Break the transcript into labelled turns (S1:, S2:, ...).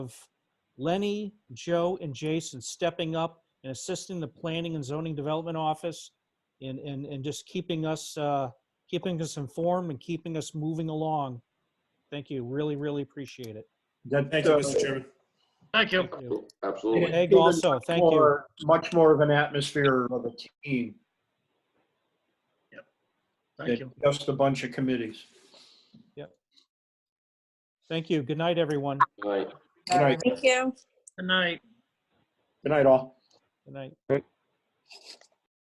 S1: of Lenny, Joe, and Jason stepping up and assisting the Planning and Zoning Development Office and, and, and just keeping us, uh, keeping us informed and keeping us moving along. Thank you. Really, really appreciate it.
S2: That,
S3: Thank you,
S2: uh,
S3: Mr. Chairman.
S4: Thank you.
S1: Thank you.
S5: Absolutely.
S1: Egg
S2: even
S1: also,
S2: much
S1: thank you.
S2: more- Much more of an atmosphere of a team
S4: Thank you.
S2: than just a bunch of committees.
S1: Thank you. Good night, everyone.
S5: Good night.
S2: Good night.
S6: Thank you.
S4: Good night.
S2: Good night, all.
S1: Good night.